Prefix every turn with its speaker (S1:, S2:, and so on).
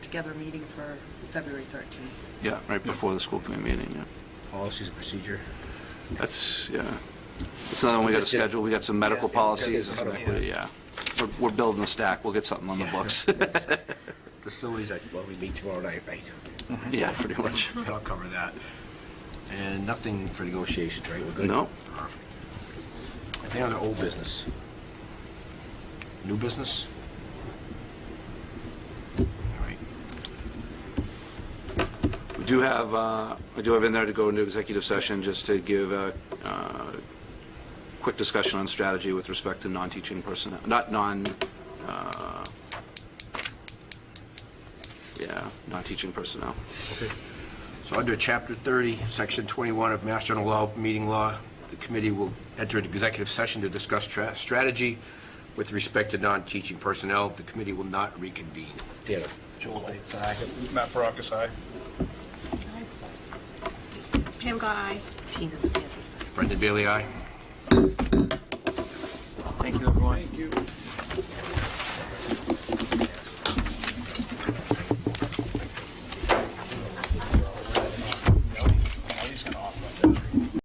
S1: together meeting for February 13th.
S2: Yeah, right before the school committee meeting, yeah.
S3: Policies and procedure.
S2: That's, yeah. It's another one we got to
S3: That's it.
S2: schedule. We got some medical
S3: Yeah, yeah,
S2: policies,
S3: yeah.
S2: and some equity, yeah. We're, we're building a stack. We'll get something on the books.
S3: Facilities, I- well, we meet tomorrow night, right?
S2: Yeah, pretty much.
S3: I'll cover that. And nothing for negotiations, right? We're good?
S2: No.
S3: Perfect. Any other old business? New business? All right.
S2: We do have, uh, I do have in there to go into executive session just to give a uh, quick discussion on strategy with respect to non-teaching personnel, not non, uh, yeah, non-teaching personnel.
S3: So under Chapter 30, Section 21 of Mass General Law, Meeting Law, the committee will enter an executive session to discuss tra- strategy with respect to non-teaching personnel. The committee will not reconvene. Dana?
S4: Joel Bates, aye. Matt Farrakis, aye.
S5: Pam got aye.
S1: Tina's at the other side.
S3: Brendan Bailey, aye?
S4: Thank you, everyone. Thank you.